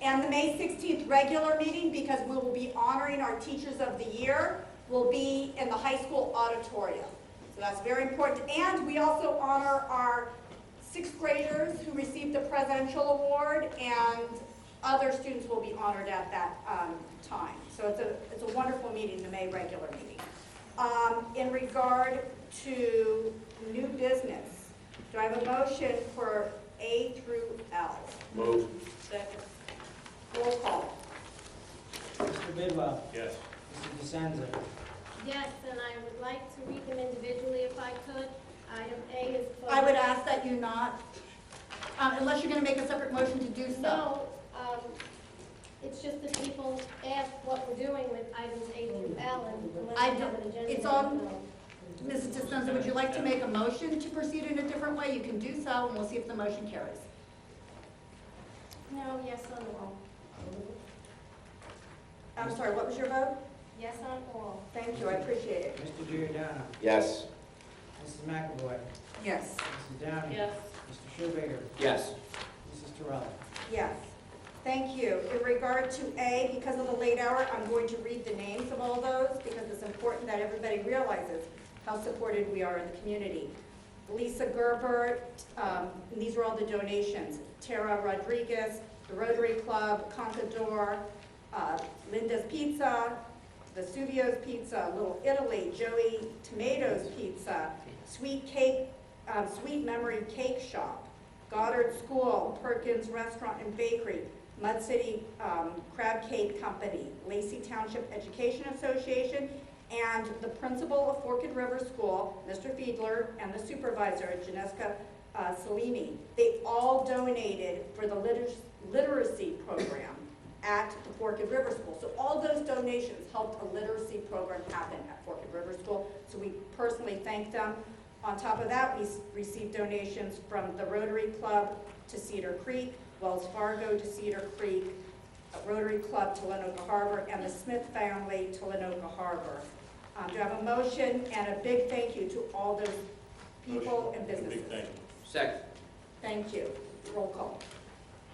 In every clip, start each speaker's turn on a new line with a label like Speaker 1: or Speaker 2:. Speaker 1: And the May 16th regular meeting, because we will be honoring our Teachers of the Year, will be in the high school auditorium. So that's very important. And we also honor our sixth graders who received the Presidential Award, and other students will be honored at that um, time. So it's a, it's a wonderful meeting, the May regular meeting. Um, In regard to new business, do I have a motion for A through L?
Speaker 2: Move.
Speaker 1: Second. Roll call.
Speaker 3: Mr. Bidwell.
Speaker 2: Yes.
Speaker 3: Mrs. DeSenza.
Speaker 4: Yes, and I would like to read them individually if I could. Item A is.
Speaker 1: I would ask that you not, um, unless you're going to make a separate motion to do so.
Speaker 4: No, um, it's just that people ask what we're doing with items A through L and unless
Speaker 1: I
Speaker 4: we have an
Speaker 1: don't-
Speaker 4: agenda.
Speaker 1: it's on-
Speaker 4: so-
Speaker 1: Mrs. DeSenza, would you like to make a motion to proceed in a different way? You can do so, and we'll see if the motion carries.
Speaker 4: No, yes on all.
Speaker 1: I'm sorry, what was your vote?
Speaker 4: Yes on all.
Speaker 1: Thank you, I appreciate it.
Speaker 3: Mr. Giordano.
Speaker 2: Yes.
Speaker 3: Mrs. McAvoy.
Speaker 1: Yes.
Speaker 3: Mrs. Downing. Mr. Schubager.
Speaker 2: Yes.
Speaker 3: Mrs. Terrell.
Speaker 1: Yes, thank you. In regard to A, because of the late hour, I'm going to read the names of all those because it's important that everybody realizes how supported we are in the community. Lisa Gerber, um, and these are all the donations. Tara Rodriguez, the Rotary Club, Contador, uh, Linda's Pizza, Vesuvio's Pizza, Little Italy, Joey Tomatoes Pizza, Sweet Cake, um, Sweet Memory Cake Shop, Goddard School, Perkins Restaurant and Bakery, Mud City um, Crab Cake Company, Lacey Township Education Association, and the principal of Forked River School, Mr. Fiedler, and the supervisor, Janeska uh, Salini. They all donated for the liter- literacy program at the Forked River School. So all those donations helped a literacy program happen at Forked River School, so we personally thank them. On top of that, we s- received donations from the Rotary Club to Cedar Creek, Wells Fargo to Cedar Creek, Rotary Club to Lenoka Harbor, and the Smith family to Lenoka Harbor. Um, Do I have a motion and a big thank you to all those people and businesses?
Speaker 2: Big thing. Second.
Speaker 1: Thank you. Roll call.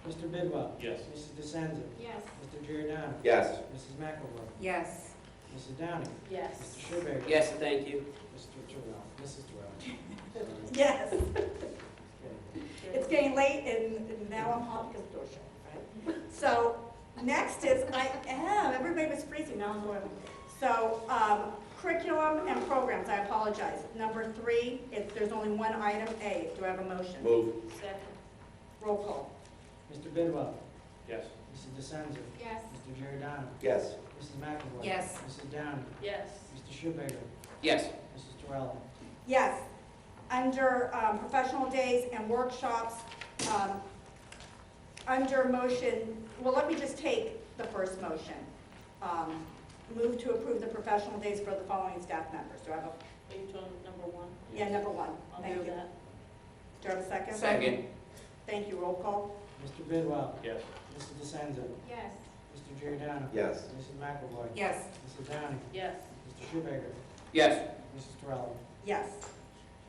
Speaker 3: Mr. Bidwell.
Speaker 2: Yes.
Speaker 3: Mrs. DeSenza.
Speaker 4: Yes.
Speaker 3: Mr. Giordano.
Speaker 2: Yes.
Speaker 3: Mrs. McAvoy.
Speaker 1: Yes.
Speaker 3: Mrs. Downing.
Speaker 1: Yes.
Speaker 3: Mr. Schubager.
Speaker 2: Yes, thank you.
Speaker 3: Mr. Terrell. Mrs. Terrell. Sorry.
Speaker 1: Yes.
Speaker 3: Okay.
Speaker 1: It's getting late and and now I'm hot because the door shut, right? So next is, I am, everybody was freezing, now I'm boiling. So um, curriculum and programs, I apologize. Number three, if there's only one item, A, do I have a motion?
Speaker 2: Move.
Speaker 1: Roll call.
Speaker 3: Mr. Bidwell.
Speaker 2: Yes.
Speaker 3: Mrs. DeSenza.
Speaker 4: Yes.
Speaker 3: Mr. Giordano.
Speaker 2: Yes.
Speaker 3: Mrs. McAvoy.
Speaker 1: Yes.
Speaker 3: Mrs. Downing.
Speaker 5: Yes.
Speaker 3: Mr. Schubager.
Speaker 2: Yes.
Speaker 3: Mrs. Terrell.
Speaker 1: Yes, under um, professional days and workshops, um, under motion, well, let me just take the first motion. Um, Move to approve the professional days for the following staff members. Do I have a,
Speaker 5: Are you doing number one?
Speaker 1: yeah, number one,
Speaker 5: I'll
Speaker 1: thank you.
Speaker 5: do that.
Speaker 1: Do I have a second?
Speaker 2: Second.
Speaker 1: Thank you, roll call.
Speaker 3: Mr. Bidwell.
Speaker 2: Yes.
Speaker 3: Mrs. DeSenza.
Speaker 4: Yes.
Speaker 3: Mr. Giordano.
Speaker 2: Yes.
Speaker 3: Mrs. McAvoy.
Speaker 1: Yes.
Speaker 3: Mrs. Downing.
Speaker 5: Yes.
Speaker 3: Mr. Schubager.
Speaker 2: Yes.
Speaker 3: Mrs. Terrell.
Speaker 1: Yes.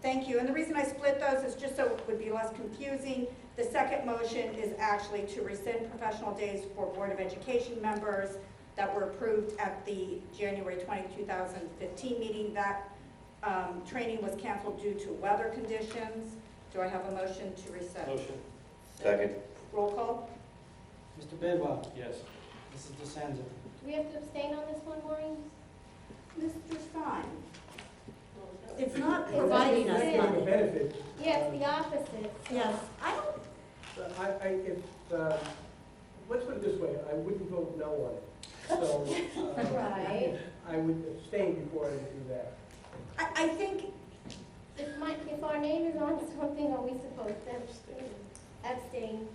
Speaker 1: Thank you. And the reason I split those is just so it would be less confusing. The second motion is actually to rescind professional days for Board of Education members that were approved at the January 20, 2015 meeting. That um, training was canceled due to weather conditions. Do I have a motion to rescind?
Speaker 2: Motion. Second.
Speaker 1: Roll call?
Speaker 3: Mr. Bidwell.
Speaker 2: Yes.
Speaker 3: Mrs. DeSenza.
Speaker 4: Do we have to abstain on this one, Maureen?
Speaker 1: Mr. Stein?
Speaker 5: What was that?
Speaker 1: It's not
Speaker 4: providing us money.
Speaker 6: benefit.
Speaker 4: Yes, the opposite.
Speaker 1: Yes. I don't,
Speaker 6: Uh, I, I, if, uh, let's put it this way, I wouldn't vote no on it. So, uh,
Speaker 4: Right.
Speaker 6: I would abstain before I would do that.
Speaker 1: I, I think
Speaker 4: If my, if our name is on something, are we supposed to abstain? Abstain.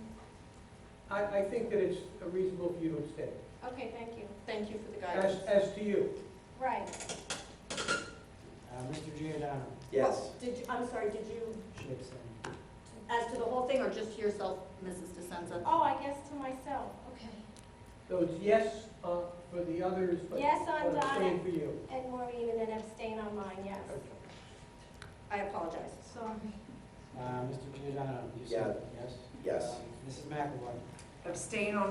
Speaker 6: I, I think that it's reasonable for you to abstain,
Speaker 4: Okay, thank you.
Speaker 1: Thank you for the
Speaker 6: as,
Speaker 1: guidance.
Speaker 6: as to you.
Speaker 4: Right.
Speaker 3: Uh, Mr. Giordano.
Speaker 2: Yes.
Speaker 1: Did you, I'm sorry, did you,
Speaker 3: She abstained.
Speaker 1: as to the whole thing or just to yourself, Mrs. DeSenza?
Speaker 4: Oh, I guess to myself, okay.
Speaker 6: So it's yes, uh, for the others, but
Speaker 4: Yes on
Speaker 6: but abstain
Speaker 4: Donna.
Speaker 6: for you.
Speaker 4: And Maureen, and then abstain on mine, yes.
Speaker 1: I apologize.
Speaker 4: Sorry.
Speaker 3: Uh, Mr. Giordano. you said Yes.
Speaker 2: Yes.
Speaker 3: Um, Mrs. McAvoy.
Speaker 7: abstain on